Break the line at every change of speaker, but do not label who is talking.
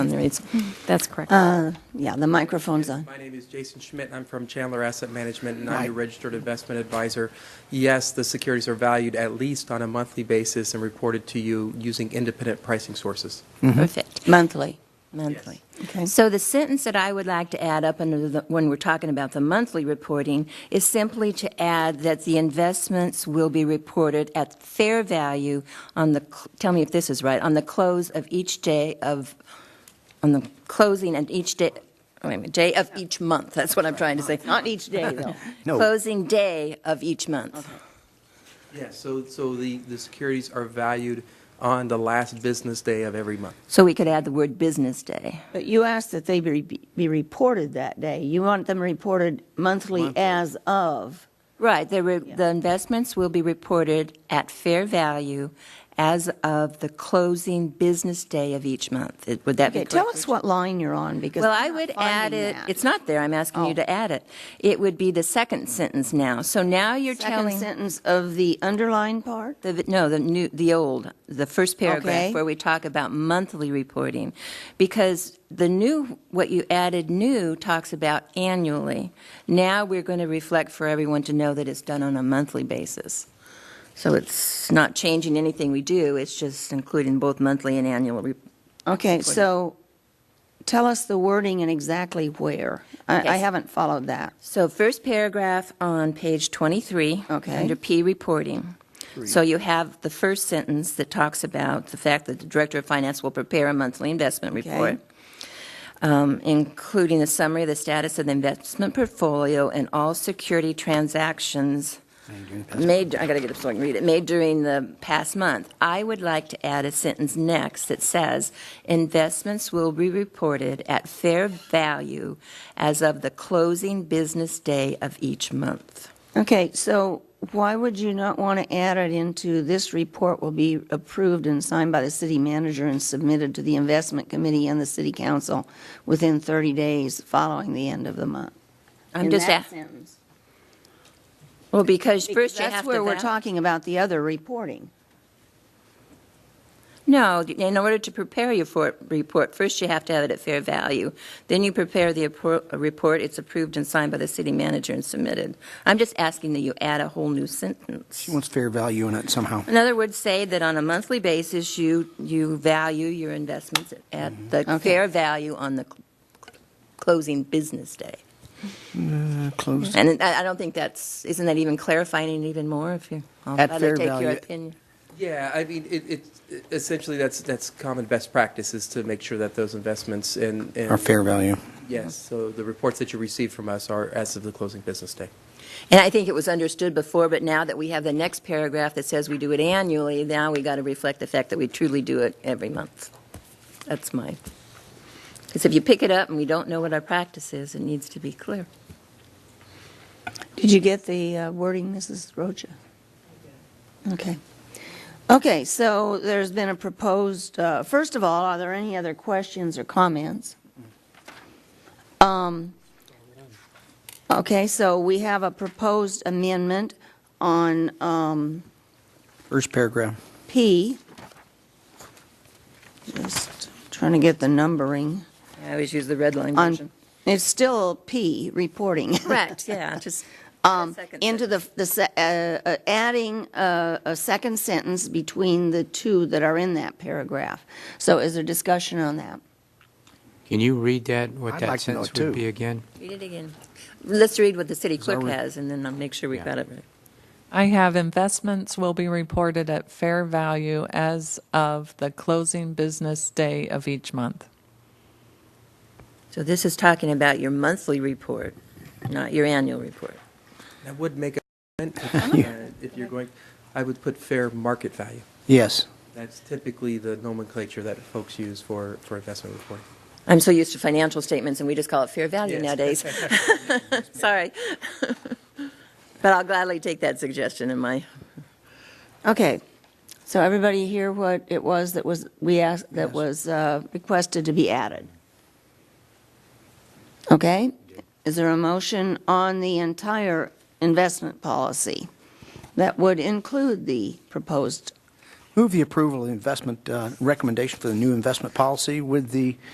on Uh, there. It's, Hmm. that's correct.
Yeah, the microphone's on.
My name is Jason Schmidt, and I'm from Chandler Asset Management, and I'm
Right.
a registered investment advisor. Yes, the securities are valued at least on a monthly basis and reported to you using independent pricing sources.
Perfect.
Monthly.
Monthly.
Okay.
So the sentence that I would like to add up under the, when we're talking about the monthly reporting is simply to add that the investments will be reported at fair value on the, cl- tell me if this is right, on the close of each day of, on the closing and each day, wait a minute, day of each month. That's what I'm trying to say. Not each day, though.
No.
Closing day of each month.
Yes, so, so the, the securities are valued on the last business day of every month.
So we could add the word business day.
But you asked that they be, be reported that day. You want them reported monthly as of.
Right, the, re- the investments will be reported at fair value as of the closing business day of each month. It- Would that be
Okay,
correct?
tell us what line you're on because.
Well,
I'm
I
not
would
finding
add it,
that.
it's not there, I'm asking
Oh.
you to add it. It would be the second sentence now. So now you're
Second
telling,
sentence of the underlined part?
the- no, the new, the old, the first
Okay.
paragraph where we talk about monthly reporting. Because the new, what you added new talks about annually. Now we're going to reflect for everyone to know that it's done on a monthly basis. So it's not changing anything we do, it's just including both monthly and annual. re-
Okay, so tell us the wording and exactly where. I, I
Yes.
haven't followed that.
So first paragraph on page 23.
Okay.
Under P, reporting. So you have the first sentence that talks about the fact that the Director of Finance will prepare a monthly investment
Okay.
report, um, including a summary of the status of the investment portfolio and all security transactions made, I gotta get up so I can read it, made during the past month. I would like to add a sentence next that says, investments will be reported at fair value as of the closing business day of each month.
Okay, so why would you not want to add it into this report will be approved and signed by the city manager and submitted to the investment committee and the city council within 30 days following the end of the month?
I'm just, a-
sentence.
well, because
Because
first you have to.
that's where we're
val-
talking about the other reporting.
No, in order to prepare your for, report, first you have to have it at fair value. Then you prepare the appro- report, it's approved and signed by the city manager and submitted. I'm just asking that you add a whole new sentence.
She wants fair value in it somehow.
In other words, say that on a monthly basis, you, you value your investments
Mm-hmm.
at the
Okay.
fair value on the cl- closing business day.
Closed.
And I, I don't think that's, isn't that even clarifying it even more if you, I'll
At
rather
fair
take your
value.
opinion.
Yeah, I mean, it, it, essentially, that's, that's common best practice is to make sure that those investments and. and-
Or fair value.
Yes, so the reports that you receive from us are as of the closing business day.
And I think it was understood before, but now that we have the next paragraph that says we do it annually, now we got to reflect the fact that we truly do it every month. That's my, because if you pick it up and we don't know what our practice is, it needs to be clear.
Did you get the uh, wording, Mrs. Rocha? Okay. Okay, so there's been a proposed, uh, first of all, are there any other questions or comments? Um, Okay, so we have a proposed amendment on um,
First paragraph.
P. Just trying to get the numbering.
I always use the red line version.
On, it's still P, reporting.
Correct, yeah, just.
Um, into the, the, se- uh, uh, adding a, a second sentence between the two that are in that paragraph. So is there discussion on that?
Can you read that, what
I'd
that
like to know it
sentence would
too.
be again?
Read it again. Let's read what the city
that
clerk
re-
has, and then I'll make sure we've
Yeah.
got it right.
I have investments will be reported at fair value as of the closing business day of each month.
So this is talking about your monthly report, not your annual report.
I would make a comment if, uh, if you're going, I would put fair market value.
Yes.
That's typically the nomenclature that folks use for, for investment reporting.
I'm so used to financial statements, and we just call it fair value
Yes.
nowadays. Sorry. But I'll gladly take that suggestion in my,
Okay, so everybody hear what it was that was, we asked, that was uh, requested to be added? Okay, is there a motion on the entire investment policy that would include the proposed
Move the approval of the investment uh, recommendation for the new investment policy with the